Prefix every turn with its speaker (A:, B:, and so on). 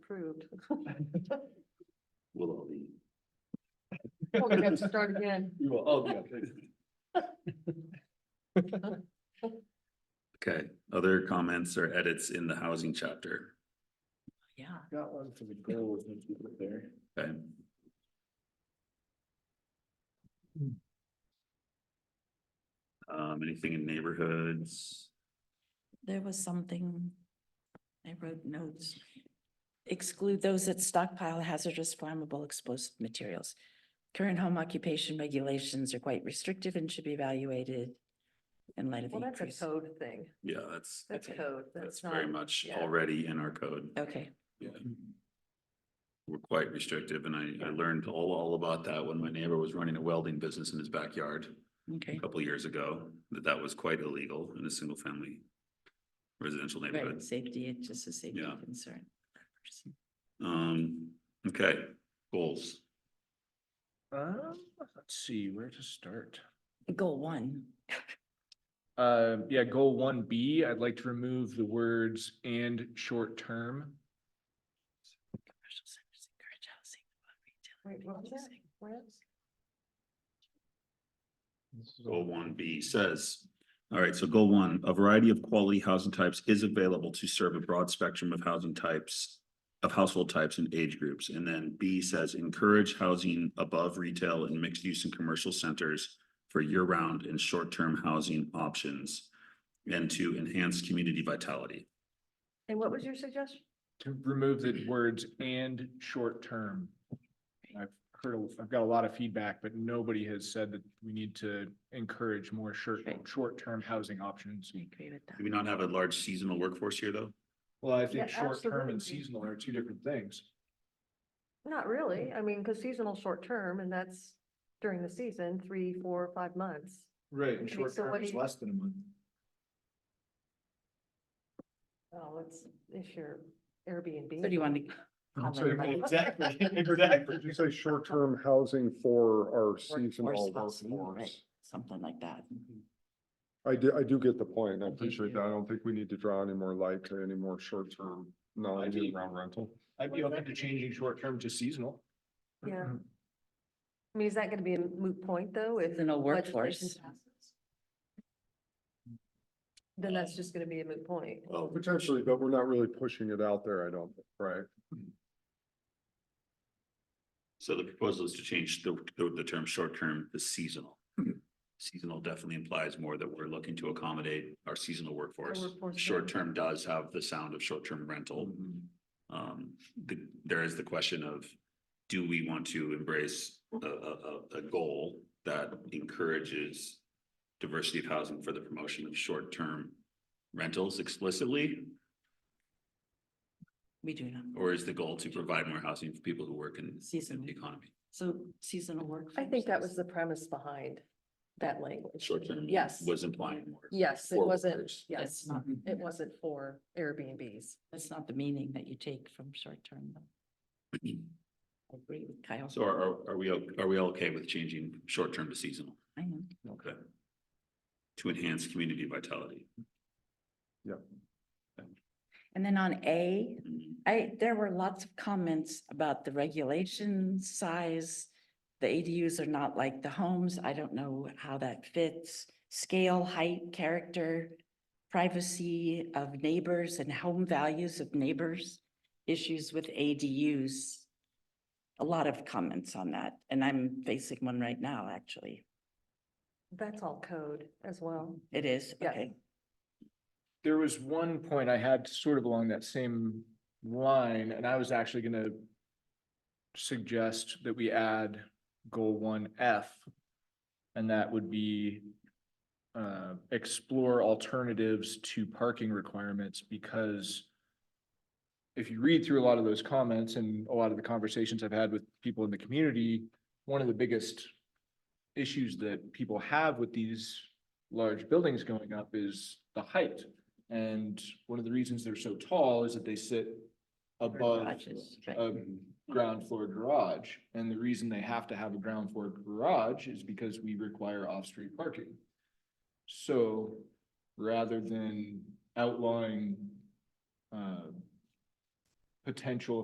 A: approved.
B: Will all be.
A: We're gonna have to start again.
B: You will, oh, yeah. okay.
C: Okay, other comments or edits in the housing chapter?
A: Yeah.
B: Got one for the goal, isn't it, there?
C: Okay. Um, anything in neighborhoods?
D: There was something, I wrote notes. Exclude those that stockpile hazardous flammable explosive materials. Current home occupation regulations are quite restrictive and should be evaluated in light of the
A: Well, that's
D: increase.
A: a code thing.
C: Yeah, that's,
A: That's
D: Okay.
A: code.
C: that's
A: That's not.
C: very much
A: yeah.
C: already in our code.
D: Okay,
C: Yeah. We're quite restrictive and I, I learned all, all about that when my neighbor was running a welding business in his backyard a
D: okay,
C: couple years ago, that that was quite illegal in a single family residential neighborhood.
D: right, safety, it's just a safety
C: Yeah.
D: concern.
C: Um, okay, goals.
B: Um, let's see, where to start?
D: Goal one,
B: Uh, yeah, goal one B, I'd like to remove the words and short term.
D: commercial centers encourage housing.
A: Wait,
D: retail,
A: what was that?
D: housing.
A: Where is-
C: Goal one B says, all right, so goal one, a variety of quality housing types is available to serve a broad spectrum of housing types. Of household types and age groups, and then B says encourage housing above retail and mixed use and commercial centers. For year round and short term housing options and to enhance community vitality.
A: And what was your suggestion?
B: To remove the words and short term. I've heard, a- I've got a lot of feedback, but nobody has said that we need to encourage more short,
D: Right.
B: short term housing options.
D: I agree with
C: Do we
D: that.
C: not have a large seasonal workforce here, though?
B: Well, I
A: Yeah,
B: think short term
A: absolutely.
B: and seasonal are two different things.
A: Not really. I mean, because seasonal short term and that's during the season, three, four, five months.
B: Right,
A: and Okay, short so term what is do you-
B: less than a month.
A: Well, it's, if you're Airbnb.
D: So do you want to,
B: Exactly, exactly.
E: Did you say short-term housing for our seasonal
D: Workforce housing, right,
E: workforce?
D: something like that.
E: I do, I do get the point. and I
D: I do
E: appreciate
D: too.
E: that. I don't think we need to draw any more light to any more short-term, non-year-round rental.
B: I'd be open to changing short term to seasonal.
A: Yeah. I mean, is that gonna be a moot point though? If
D: Seasonal
A: legislation
D: workforce.
A: passes? Then that's just gonna be a moot point.
C: Well,
E: Potentially, but we're not really pushing it out there, I don't, think, right?
C: So the proposal is to change the, the, the term short-term to seasonal.
A: Mm-hmm.
C: Seasonal definitely implies more that we're looking to accommodate our seasonal workforce.
A: workforce, yeah.
C: Short-term does have the sound of short-term rental.
A: Mm-hmm.
C: Um, the, there is the question of, do we want to embrace a, a, a, a goal that encourages diversity of housing for the promotion of short-term rentals explicitly?
D: We do not.
C: Or is the goal to provide more housing for people who work in in
D: Seasonal.
C: the economy?
D: So seasonal work.
A: I think that was the premise behind that language.
C: Short-term
A: Yes.
C: was implying more.
A: Yes, it
C: for
A: wasn't,
C: workers.
A: yes,
D: That's not,
A: it wasn't for Airbnbs.
D: that's not the meaning that you take from short term. though. I agree with Kyle.
C: So are, are- are we, o- are we all okay with changing short-term to seasonal?
D: I am.
C: Okay. To enhance community vitality.
D: And then on A, I, there were lots of comments about the regulation size. The ADUs are not like the homes. I don't know how that fits. Scale, height, character, privacy of neighbors and home values of neighbors, issues with ADUs. A lot of comments on that, and I'm facing one right now, actually.
A: That's all code as well.
D: It is,
A: Yeah.
D: okay.
B: There was one point I had sort of along that same line, and I was actually gonna suggest that we add goal one F. And that would be uh, explore alternatives to parking requirements because if you read through a lot of those comments and a lot of the conversations I've had with people in the community, one of the biggest issues that people have with these large buildings going up is the height. And one of the reasons they're so tall is that they sit above
D: Garages, right.
B: a ground floor garage. And the reason they have to have a ground floor garage is because we require off-street parking. So rather than outlawing uh, potential